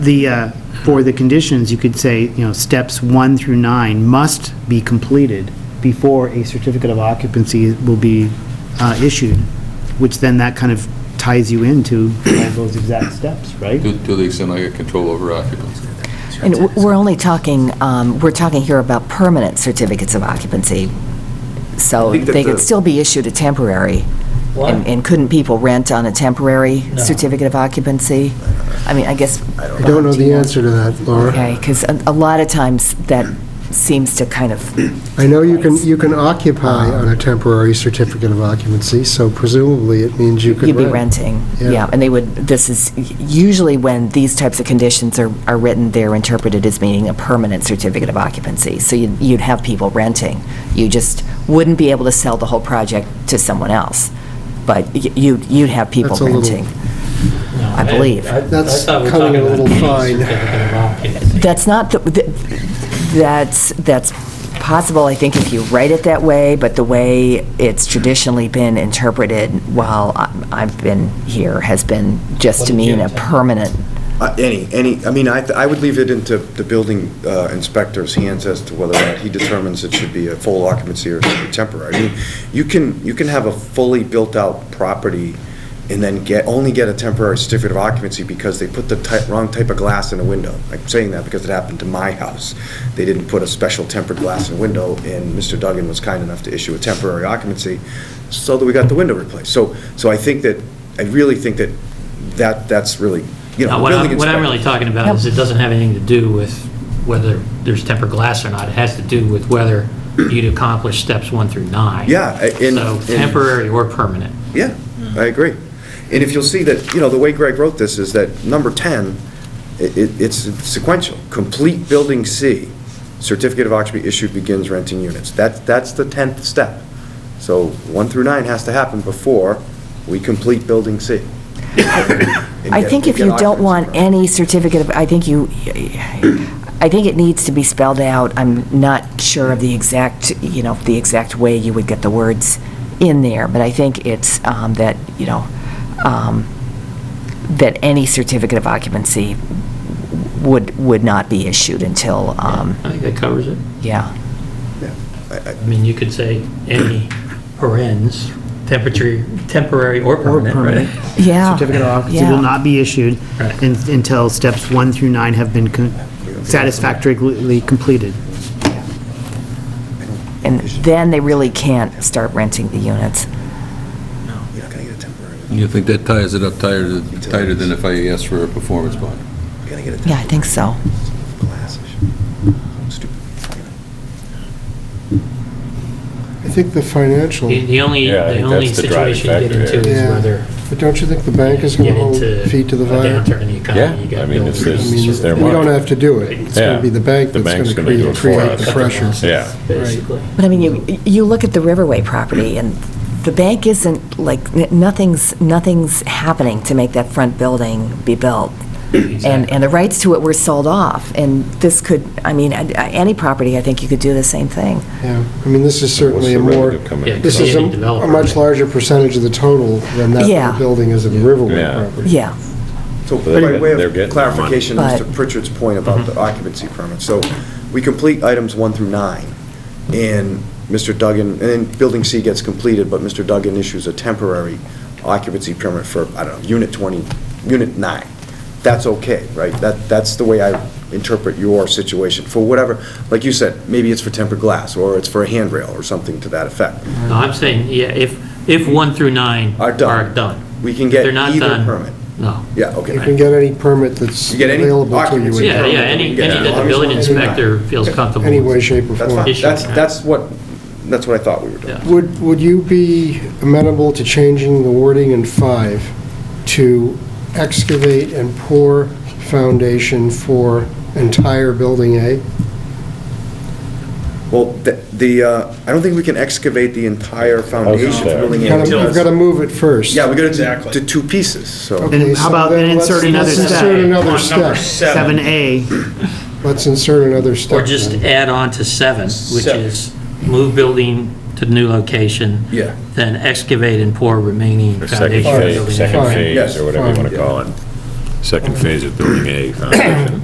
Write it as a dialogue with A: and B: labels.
A: The, uh, for the conditions, you could say, you know, steps one through nine must be completed before a certificate of occupancy will be uh, issued, which then that kind of ties you into all those exact steps, right?
B: To to the extent I get control over occupancy.
C: And w- we're only talking, um, we're talking here about permanent certificates of occupancy, so
D: I think that
C: they could
D: the-
C: still be issued a temporary. And and couldn't people rent on a temporary certificate of occupancy? I mean, I guess...
E: I don't know the answer to that, Laura.
C: Okay, because a a lot of times that seems to kind of,
E: I know you can, you can occupy
C: Ah.
E: on a temporary certificate of occupancy, so presumably it means you could
C: you'd
E: rent.
C: be renting.
E: Yeah.
C: Yeah, and they would, this is, usually when these types of conditions are are written, they're interpreted as meaning a permanent certificate of occupancy. So you'd you'd have people renting. You just wouldn't be able to sell the whole project to someone else, but y- you'd you'd have people
E: That's a little-
C: renting. I believe.
E: That's cutting it a little fine.
C: That's not, the- th- that's, that's possible, I think, if you write it that way, but the way it's traditionally been interpreted while I- I've been here has been just to mean a permanent,
F: Uh, Any, any, I mean, I, I would leave it into the building uh, inspector's hands as to whether or not he determines it should be a full occupancy or should be temporary. I mean, you can, you can have a fully built-out property and then get, only get a temporary certificate of occupancy because they put the type, wrong type of glass in a window. I'm saying that because it happened to my house. They didn't put a special tempered glass in a window, and Mr. Duggan was kind enough to issue a temporary occupancy, so that we got the window replaced. So, so I think that, I really think that, that, that's really, you know,
G: No, What
F: building
G: I'm, what I'm
F: inspector-
G: really talking about is it doesn't have anything to do with whether there's tempered glass or not. It has to do with whether you'd accomplish steps one through nine.
F: Yeah, I- in-
G: So
F: in-
G: temporary or permanent.
F: Yeah, I agree. And if you'll see that, you know, the way Greg wrote this is that number 10, i- i it's sequential. Complete building C, certificate of occupancy issued begins renting units. That's, that's the 10th step. So 1 through 9 has to happen before we complete building C.
C: I think if you don't want any certificate of, I think you, I think it needs to be spelled out. I'm not sure of the exact, you know, the exact way you would get the words in there, but I think it's um, that, you know, um, that any certificate of occupancy would, would not be issued until, um,
G: I think that covers it.
C: yeah.
G: I mean, you could say any parens, temperature, temporary or permanent, right?
C: Yeah.
A: Certificate of occupancy will
C: Yeah.
A: not be issued
G: Right.
A: un- until steps one through nine have been con- satisfactorily completed.
C: And then they really can't start renting the units.
F: You're not going to get a temporary,
B: You think that ties it up tighter, tighter than if I asked for a performance bond?
F: you're going to get a
C: Yeah, I think so.
F: temporary glass issue. Stupid.
E: I think the financial,
G: The the only,
H: Yeah, I
G: the
H: think
G: only
H: that's the driving
G: situation you get
H: factor,
G: into is
E: yeah.
G: whether.
E: but don't you think the bank is going
G: you
E: to
G: get
E: hold
G: into
E: feet to the
G: a
E: fire?
G: Downturn in the economy,
H: Yeah,
G: you got
H: I mean,
G: bills.
H: if
E: I
H: there's-
E: mean,
H: It's their
E: We don't
H: money.
E: have to do it. It's going
H: Yeah.
E: to be the bank
H: The
E: that's going
H: bank's
E: to
H: gonna do
E: create
H: it for
E: create the
H: us.
E: pressure.
H: Yeah.
G: Basically.
C: But I mean, you, you look at the Riverway property, and the bank isn't, like, n- nothing's, nothing's happening to make that front building be built. And, and the rights to it were sold off, and this could, I mean, I- I- any property, I think you could do the same thing.
E: Yeah, I mean, this is certainly a
H: What's the
E: more,
H: revenue coming in?
G: Yeah,
E: this is a
G: Any developer.
E: a much larger percentage of the total than
C: Yeah.
E: that building is of Riverway
H: Yeah.
E: property.
C: Yeah.
F: So
H: But
F: by way
H: they're
F: of
H: getting
F: clarification,
C: their money.
F: Mr. Pritchard's point about the occupancy permit, so we complete items one through nine, and Mr. Duggan, and then Building C gets completed, but Mr. Duggan issues a temporary occupancy permit for, I don't know, Unit 20, Unit 9. That's okay, right? That, that's the way I interpret your situation, for whatever, like you said, maybe it's for tempered glass, or it's for a handrail, or something to that effect.
G: No, I'm saying, yeah, if, if one through nine
F: Are
G: are
F: done.
G: done.
F: We can
G: If
F: get
G: they're not
F: either
G: done,
F: permit.
G: No.
F: Yeah, okay.
E: You can get any permit that's
F: You get any
E: available to you.
F: occupancy
E: in
G: Yeah,
F: permit
G: yeah,
E: town.
F: we
G: any,
F: can get
G: any
F: it.
G: that the building inspector feels comfortable
E: Any way,
G: with.
E: shape, or
F: That's
E: form.
F: fine,
G: Issue,
F: that's,
G: right.
F: that's what, that's what I thought we were doing.
E: Would, would you be amenable to changing the wording in five to excavate and pour foundation for entire building A?
F: Well, the- the, uh, I don't think we can excavate the entire foundation
H: there.
F: building.
E: You've
F: in.
E: got to move it first.
F: Yeah, we got to do two pieces, so.
A: And
E: Okay,
A: how
E: so
A: about
E: then
A: then
E: let's-
A: insert another
E: Let's
A: step?
E: insert another step.
A: Seven A,
E: Let's insert another step.
G: Or just
E: then.
G: add on to seven, which is move building to the new location.
F: Yeah.
G: Then excavate and pour remaining
H: Or second
G: foundation.
H: phase,
G: building.
H: second
E: Fine.
H: phase,
F: Yes,
H: or whatever you
E: fine.
H: want to call it. second phase of Building A foundation.